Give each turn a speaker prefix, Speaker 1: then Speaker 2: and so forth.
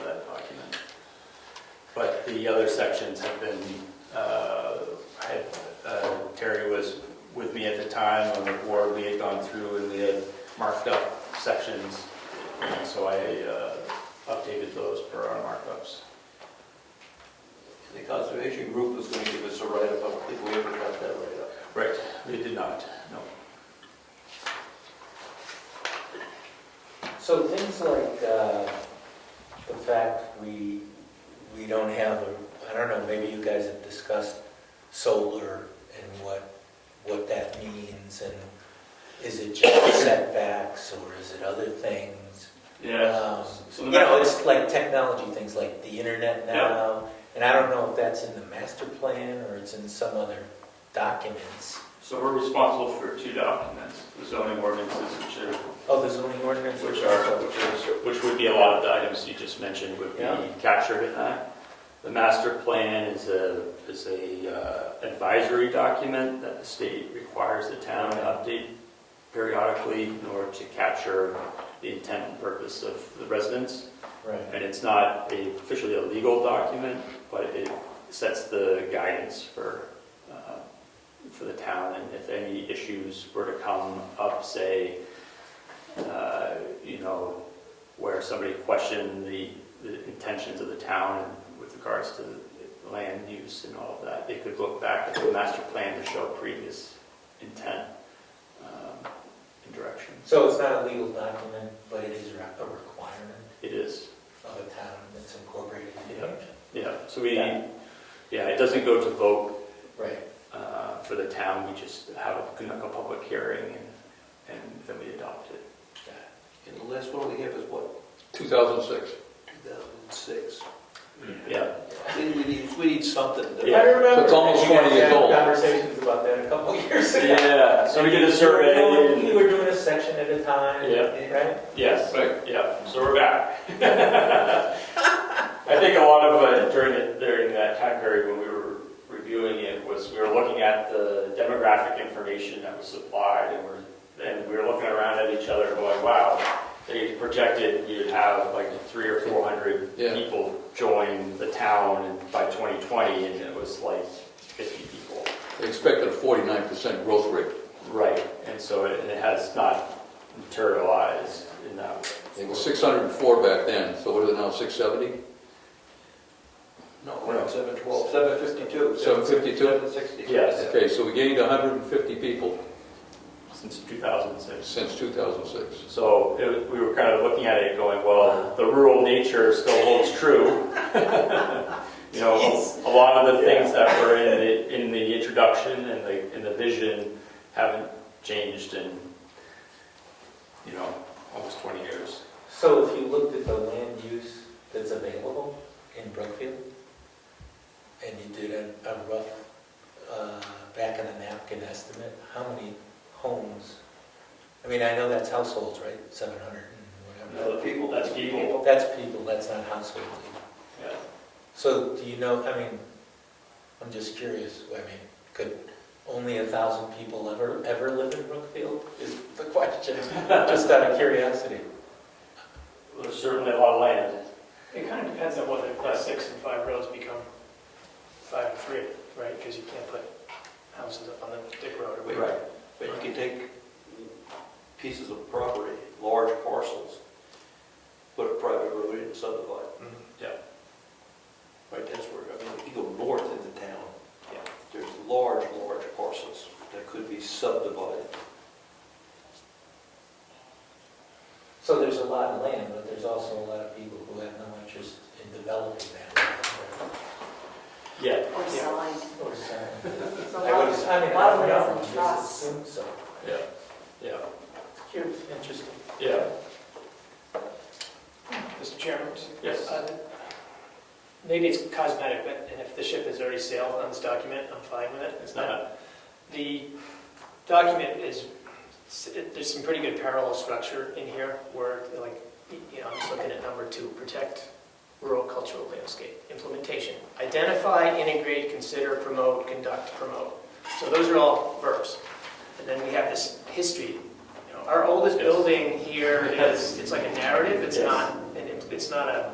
Speaker 1: But the other sections have been, uh, had, uh, Terry was with me at the time on the board, we had gone through and we had marked up sections, and so I uh, updated those per our markups.
Speaker 2: The conservation group was going to give us a write-up, I don't think we ever got that write-up.
Speaker 1: Right, we did not, no.
Speaker 3: So things like uh, the fact we, we don't have, a I don't know, maybe you guys have discussed solar and what, what that means and is it just setbacks or is it other things?
Speaker 4: Yeah.
Speaker 3: Um,
Speaker 4: So
Speaker 3: You
Speaker 4: the
Speaker 3: know,
Speaker 4: map-
Speaker 3: it's like technology, things like the internet now. And I don't know if that's in the master plan or it's in some other documents.
Speaker 4: So we're responsible for two documents, the zoning ordinances, which are,
Speaker 3: Oh, the zoning ordinance?
Speaker 4: which are, which are,
Speaker 1: Which would be a lot of the items you just mentioned would be
Speaker 4: Yeah. Uh-huh.
Speaker 1: captured in that. The master plan is a, is a uh, advisory document that the state requires the town to update periodically in order to capture the intent and purpose of the residents.
Speaker 3: Right.
Speaker 1: And it's not a- officially a legal document, but it sets the guidance for, uh, for the town. And if any issues were to come up, say, uh, you know, where somebody questioned the the intentions of the town with regards to land use and all of that, they could look back at the master plan to show previous intent um, and direction.
Speaker 3: So it's not a legal document, but it is a requirement
Speaker 1: It is
Speaker 3: of a town that's incorporated in the
Speaker 1: Yeah.
Speaker 3: action.
Speaker 1: Yeah, so we,
Speaker 3: Yeah.
Speaker 1: yeah, it doesn't go to vote
Speaker 3: Right.
Speaker 1: uh, for the town, we just have a, conduct a public hearing and- and then we adopt it.
Speaker 3: got
Speaker 2: And the last one we have is what,
Speaker 5: 2006.
Speaker 2: 2006?
Speaker 1: Yeah,
Speaker 2: We we need, we need something. to-
Speaker 3: it. I
Speaker 1: Yeah.
Speaker 3: remember.
Speaker 5: So it's almost
Speaker 3: you guys
Speaker 5: 20 years
Speaker 3: had
Speaker 5: old.
Speaker 3: Conversations about that a couple years ago.
Speaker 1: yeah, so we did a
Speaker 3: You were doing- You
Speaker 1: survey,
Speaker 3: were doing a section at a time,
Speaker 1: Yeah.
Speaker 3: right?
Speaker 1: yes,
Speaker 5: Right.
Speaker 1: yeah, so we're back. I think a lot of, uh, during, it- during that time period when we were reviewing it was, we were looking at the demographic information that was supplied and we're, and we were looking around at each other going, wow, they projected you'd have like three or four hundred
Speaker 5: Yeah.
Speaker 1: people join the town and by 2020, and it was like 50 people.
Speaker 5: They expected a 49% growth rate.
Speaker 1: Right. And so it it has not materialized in that way.
Speaker 5: It was 604 back then, so what is it now, 670?
Speaker 2: No, we're at 712, 752.
Speaker 5: 752?
Speaker 2: 760.
Speaker 1: Yes.
Speaker 5: Okay, so we gained 150 people
Speaker 1: Since 2006.
Speaker 5: since 2006.
Speaker 1: So it- we were kind of looking at it going, well, the rural nature still holds true. You know, a lot of the things that were in the, in the introduction and the, in the vision haven't changed in, you know, almost 20 years.
Speaker 3: So if you looked at the land use that's available in Brookfield, and you did a, a rough, uh, back of the napkin estimate, how many homes? I mean, I know that's households, right? Seven hundred and whatever.
Speaker 2: Now, the people.
Speaker 1: That's people.
Speaker 3: That's people, that's not households.
Speaker 1: Yeah.
Speaker 3: So do you know, I mean, I'm just curious, I mean, could only a thousand people ever, ever live in Brookfield is the question, just out of curiosity.
Speaker 1: There's certainly a lot of land.
Speaker 6: It kind of depends on whether class six and five roads become five and three, right? Because you can't put houses up on the dick road or whatever.
Speaker 2: Right. But you can take pieces of property, large parcels, put a private road in and subdivide.
Speaker 6: Mhm.
Speaker 1: Mm-hmm. Yeah.
Speaker 2: Right, that's where, I mean, if you go north into town,
Speaker 1: Yeah.
Speaker 2: there's large, large parcels that could be subdivided.
Speaker 3: So there's a lot of land, but there's also a lot of people who have no interest in developing that. land
Speaker 1: Yeah.
Speaker 7: Or sign.
Speaker 3: or- or selling it.
Speaker 7: There's a
Speaker 3: I
Speaker 7: lot
Speaker 3: would,
Speaker 7: of-
Speaker 3: I mean, I
Speaker 7: a lot of
Speaker 3: don't
Speaker 7: ways
Speaker 3: know,
Speaker 7: of
Speaker 3: I just
Speaker 7: trust.
Speaker 3: assume so.
Speaker 1: Yeah, yeah,
Speaker 3: Curious, interesting.
Speaker 1: yeah.
Speaker 6: Mr. Chairman?
Speaker 1: Yes.
Speaker 6: uh, Maybe it's cosmetic, but, and if the ship has already sailed on this document, I'm fine with it. Uh,
Speaker 1: It's not,
Speaker 6: The document is, there's some pretty good parallel structure in here where, like, you know, I'm just looking at number two, protect rural cultural landscape, implementation. Identify, integrate, consider, promote, conduct, promote. So those are all verbs. And then we have this history. You know, Our oldest
Speaker 1: Yes.
Speaker 6: building here is, it's like a narrative, it's
Speaker 1: Yes.
Speaker 6: not, and it- it's not a